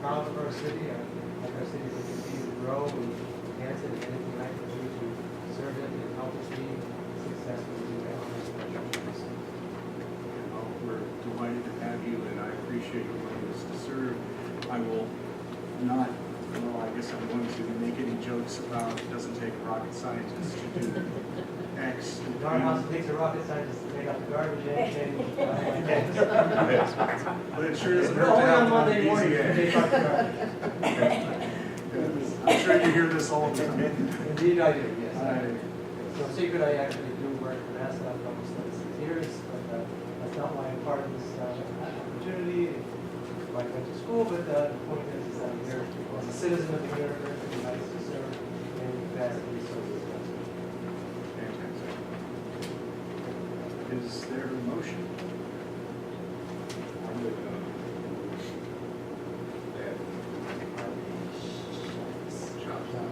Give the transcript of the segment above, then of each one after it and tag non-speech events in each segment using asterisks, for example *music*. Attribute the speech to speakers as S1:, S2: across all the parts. S1: proud of our city, I like our city to continue to grow and enhance it, and anything I can do to serve it and help us be successful, do that on this project.
S2: And uh, we're delighted to have you, and I appreciate your willingness to serve. I will not, well, I guess I'm going to make any jokes about it doesn't take a rocket scientist to do X.
S1: The darn house takes a rocket scientist to take out the garbage and, and, uh,
S2: But it sure doesn't
S1: Only on
S2: hurt to have one
S1: Monday
S2: easy
S1: morning,
S2: A.
S1: they talk garbage.
S2: I'm sure you hear this all the time.
S1: Indeed I do, yes. I do.
S2: I-
S1: No secret, I actually do work for NASA for almost thirty-six years, but uh, that's not why I'm part of this uh, opportunity. I went to school, but uh, the point is, is I'm here as a citizen of the university, and I serve in capacity, so it's
S2: Fantastic. Is there a motion?
S3: I would, um, that drop down,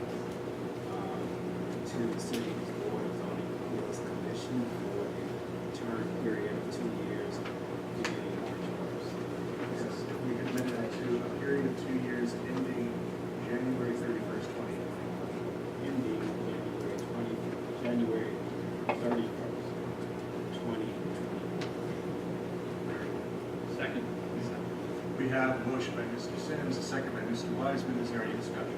S3: um, to the city's board of zoning appeals commission for a term period of two years, beginning March
S2: Yes,
S3: first.
S2: we commit that to a period of two years ending January thirty-first, twenty twenty.
S3: Ending January twenty, January thirty-first, twenty twenty.
S4: Second.
S2: We have a motion by Mr. Sims, a second by Mr. Wiseman. Is there any discussion?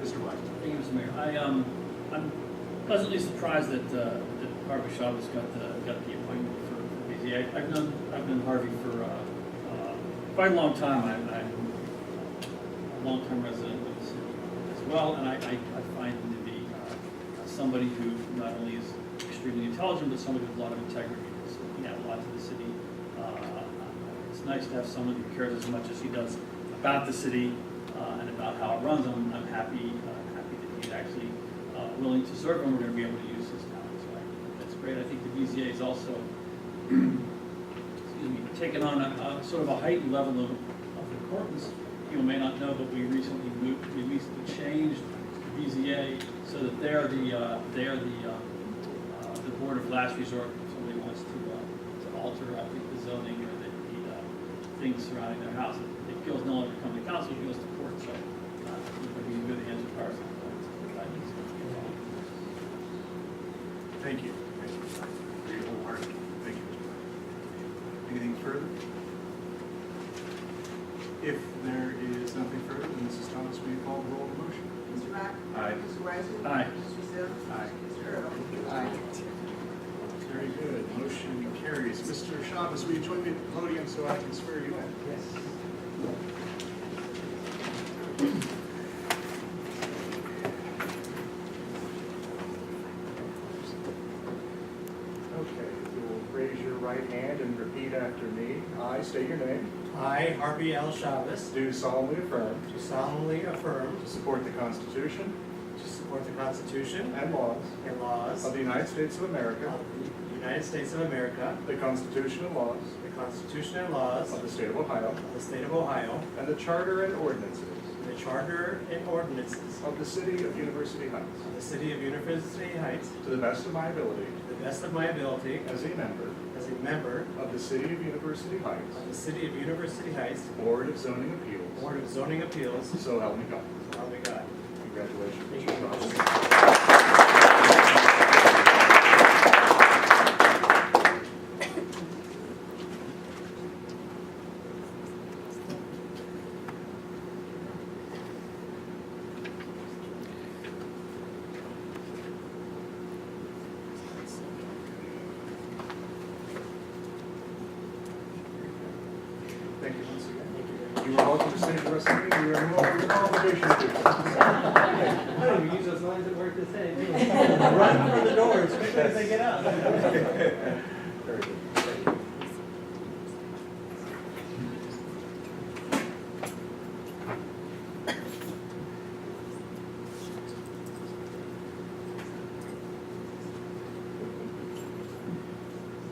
S2: Mr. Wiseman?
S4: Thank you, Mr. Mayor. I, um, I'm pleasantly surprised that, uh, that Harvey Shaw has got the, got the appointment for for BZ. I- I've known, I've known Harvey for, uh, uh, quite a long time. I, I'm a long-term resident of the city as well, and I, I, I find him to be, uh, somebody who not only is extremely intelligent, but somebody with a lot of integrity. He's looking out a lot to the city. Uh, It's nice to have someone who cares as much as he does about the city, uh, and about how it runs. I'm, I'm happy, uh, happy that he's actually, uh, willing to serve, and we're gonna be able to use his talents, right? That's great. I think the BZA is also, excuse me, taken on a, a sort of a heightened level of, of importance. You may not know, but we recently moved, we recently changed the BZA so that they are the, uh, they are the, um, uh, the board of last resort if somebody wants to, uh, to alter, I think, the zoning or the, the, uh, things surrounding their house. It appeals no longer come to council, it appeals to court, so, uh, it would be a good answer for our, uh,
S2: Thank you. Thank you. Very wholehearted. Thank you. Mr. Wiseman. Anything further? If there is nothing further, then Mrs. Thomas, will you call the roll of the motion?
S5: Mr. Rock?
S2: Aye.
S5: Mr. Wiseman?
S4: Aye.
S5: Mr. Sims?
S2: Aye.
S5: Mr. Earl?
S2: Very good. Motion carries. Mr. Chavez, will you join me at the podium so I can swear you in?
S1: Yes.
S2: Okay, you will raise your right hand and repeat after me. I state your name.
S6: I, Harvey L. Chavez,
S2: Do solemnly affirm
S6: do solemnly affirm
S2: to support the Constitution
S6: to support the Constitution
S2: and laws
S6: and laws
S2: of
S6: of
S2: the United States of America,
S6: the United States of America,
S2: the Constitution and laws
S6: the Constitution and laws
S2: of
S6: of
S2: the State of Ohio,
S6: the State of Ohio,
S2: and the Charter and ordinances
S6: and the Charter and ordinances
S2: of the City of University Heights,
S6: of the City of University Heights,
S2: to the best of my ability,
S6: to the best of my ability,
S2: as a member
S6: as a member
S2: of the City of University Heights
S6: of the City of University Heights
S2: Board of Zoning Appeals,
S6: Board of Zoning Appeals,
S2: so help me God.
S6: so help me God.
S2: Congratulations.
S6: Thank you.
S2: Mr. Chavez. Thank you once again. You are welcome to stay for the rest of the meeting. You are no under obligation to do so.
S1: I don't even use those lines at work to *laughs* say. Run for the doors, quickly as they get out.
S2: Very good.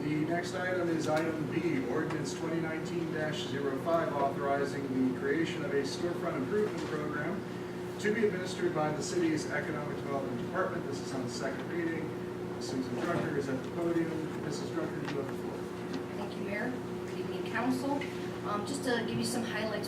S2: The next item is item B, ordinance twenty nineteen 5 authorizing the creation of a storefront improvement program to be administered by the city's economic development department. This is on the second reading. Susan Drucker is at the podium. Mrs. Drucker, you have the floor.
S7: Thank you, Mayor. Good evening, council. Um, Just to give you some highlights